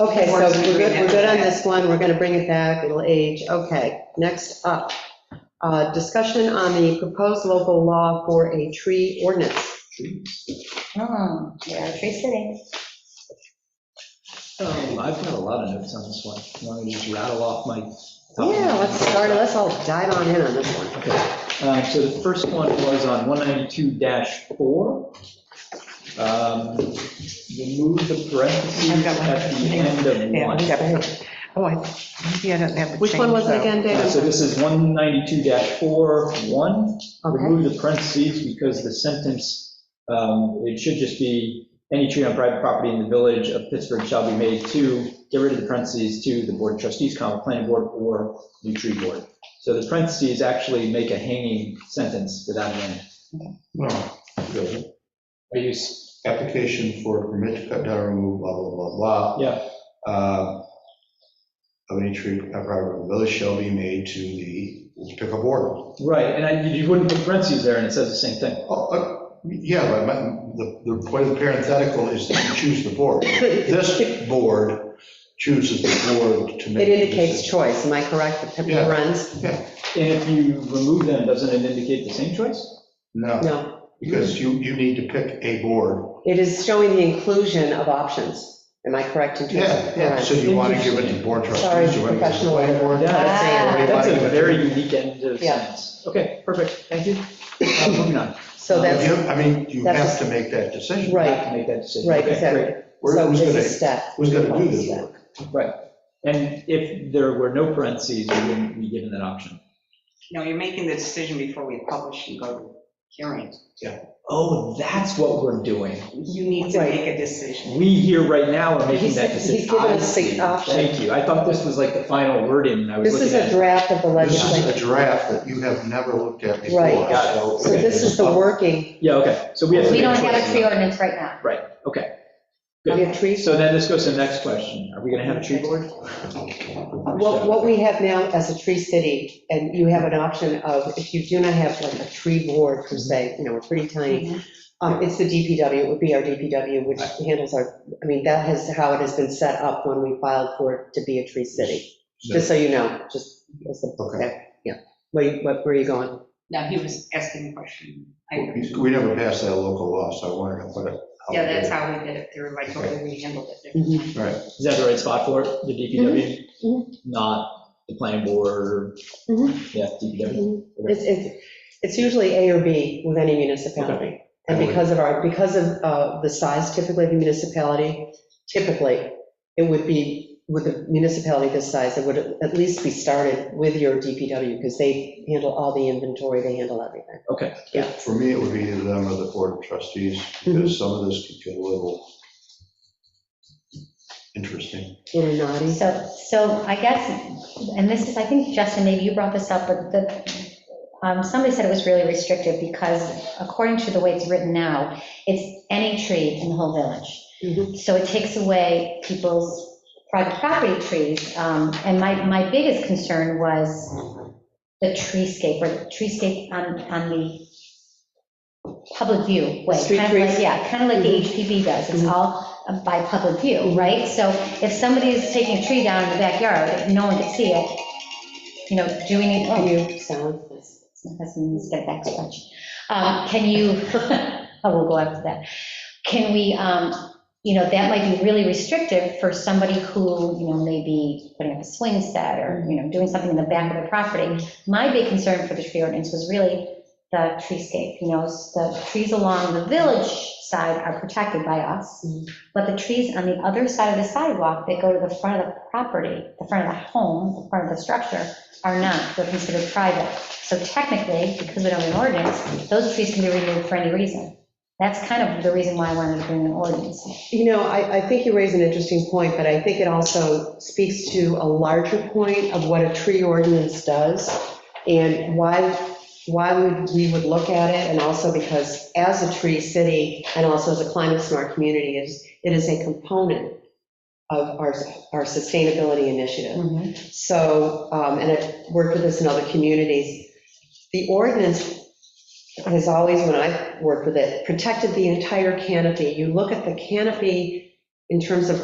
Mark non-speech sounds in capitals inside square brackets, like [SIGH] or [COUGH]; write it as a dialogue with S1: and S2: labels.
S1: Okay, so
S2: Works
S1: we're good, we're good on
S2: agreement.
S1: this one, we're gonna bring it back, it'll age, okay. Next up, uh, discussion on the proposed local law for a tree ordinance.
S2: Oh, yeah, Tree City.
S3: Oh, I've got a lot of notes on this one. You want me to just rattle off my?
S1: Yeah, let's start, let's all dive on in on this one.
S3: Okay, uh, so the first one was on 192-4. Um, Remove the
S4: I've
S3: parentheses
S4: got one.
S3: at the end
S4: Yeah, we got
S3: of one.
S4: it. Oh, I, maybe I don't have the change.
S1: Which one was it
S4: though.
S1: again,
S3: Uh, So
S1: David?
S3: this is 192-4, 1.
S1: Okay,
S3: remove the parentheses because the sentence, um, it should just be, any tree on private property in the village of Pittsburgh shall be made to, get rid of the parentheses to the board of trustees, comma, planning board, or new tree board. So the parentheses actually make a hanging sentence without an end.
S5: No, good. I use application for permit to cut down or remove, blah, blah, blah, blah.
S3: Yeah.
S5: Uh, Of any tree uprooted or village shall be made to the pickup order.
S3: Right, and I- you wouldn't put parentheses there, and it says the same thing.
S5: Oh, uh, Yeah, but my, the, the point of the parenthetical is that you choose the board. This board chooses the board to make.
S1: it
S5: the
S1: indicates
S5: decision.
S1: choice, am I correct, the
S5: Yeah.
S1: runs?
S3: And if you remove them, doesn't it indicate the same choice?
S5: No,
S1: No,
S5: because you, you need to pick a board.
S1: it is showing the inclusion of options, am I correct in terms
S5: Yeah,
S1: of
S5: yeah,
S1: parents?
S5: so you want to give it to board
S1: Sorry,
S5: trustees. you want to give it to the
S1: professional
S5: planning board.
S1: order.
S3: Yeah,
S1: Saying-
S3: That's a
S5: Anybody-
S3: very unique end of
S1: Yeah.
S3: sentence. Okay, perfect, thank
S1: [LAUGHS]
S3: you. Uh, Moving on.
S1: So
S5: But you-
S1: that's,
S5: I mean, you
S1: that's-
S5: have to make that decision.
S3: I
S1: right.
S3: have to Make that decision.
S1: right,
S3: Okay, great.
S1: exactly.
S5: Where-
S1: So
S5: who's
S1: it's a
S5: gonna-
S1: step.
S5: who's gonna do this
S1: Step.
S5: work?
S3: Right. And if there were no parentheses, we wouldn't be given that option.
S2: No, you're making the decision before we publish and go to hearing.
S3: Oh, that's what we're doing.
S2: You need to
S1: Right.
S2: make a decision.
S3: We here right now are making
S1: He's-
S3: that
S1: he's
S3: decision.
S1: given us
S3: I see.
S1: the option.
S3: Thank you. I thought this was like the final word in, I was
S1: This is
S3: looking
S1: a
S3: at.
S1: draft of the
S5: This is a
S1: legislation.
S5: draft that you have never looked at before.
S1: Right.
S3: Got it.
S5: so-
S1: So this is the working,
S3: Yeah, okay, so we have to
S6: We
S3: make
S6: don't have
S3: choices.
S6: a tree ordinance right now.
S3: Right, okay.
S1: we
S3: Good.
S1: have trees.
S3: So then this goes to the next question. Are we going to have a tree board?
S1: What, what we have now as a tree city, and you have an option of, if you do not have like a tree board per se, you know, we're pretty tiny, um, it's the DPW, it would be our DPW, which handles our, I mean, that is how it has been set up when we filed for it to be a tree city. Just so you know, just, as a-
S5: Okay.
S1: yeah. Where, you- what- where are you going?
S2: No, he was asking a question. I-
S5: We never passed that local law, so I wanted to put it. out
S2: Yeah,
S5: there.
S2: that's how we did it. They were like, oh, we handled it.
S1: Mhm.
S5: Right,
S3: Is that the right spot for it, the DPW?
S1: Mhm.
S3: Not the planning board, or
S1: Mhm.
S3: yeah, DPW?
S1: Mm-hmm. It's, it's, it's usually A or B with any municipality. And because of our, because of uh, the size typically of the municipality, typically, it would be, with a municipality this size, it would at least be started with your DPW, because they handle all the inventory, they handle everything.
S5: for me, it would be either them or the board of trustees,
S1: Mm-hmm.
S5: because some of this could get a little interesting.
S1: In a naughty,
S6: So, so I guess, and this is, I think, Justin, maybe you brought this up, but the, um, somebody said it was really restrictive because according to the way it's written now, it's any tree in the whole
S1: Mhm.
S6: village. So it takes away people's private property trees. Um, And my, my biggest concern was the treescape or the treescape on, on the public view way.
S1: Street
S6: kind of like-
S1: trees? Mm-hmm.
S6: Yeah, kind of like the HPV does. It's
S1: Mhm.
S6: all by public
S1: Mm-hmm.
S6: view, right? So if somebody is taking a tree down in the backyard, and no one can see it, you know, do we need, oh,
S1: you sound,
S6: that's, let's get back to lunch. Um, Can you, [LAUGHS] I will go after that. Can we, um, you know, that might be really restrictive for somebody who, you know, may be putting up a swing set or, you know, doing something in the back of the property. My big concern for the tree ordinance was really the treescape, you know, s- the trees along the village side are protected by us,
S1: Mhm.
S6: but the trees on the other side of the sidewalk that go to the front of the property, the front of the home, the front of the structure, are not, they're considered private. So technically, because we don't have an ordinance, those trees can be removed for any reason. That's kind of the reason why I wanted to bring an ordinance.
S1: You know, I, I think you raise an interesting point, but I think it also speaks to a larger point of what a tree ordinance does and why, why would, we would look at it, and also because as a tree city and also as a climate smart community, it is, it is a component of our, our sustainability initiative. So, um, and I've worked with this in other communities, the ordinance has always, when I've worked with it, protected the entire canopy. You look at the canopy in terms of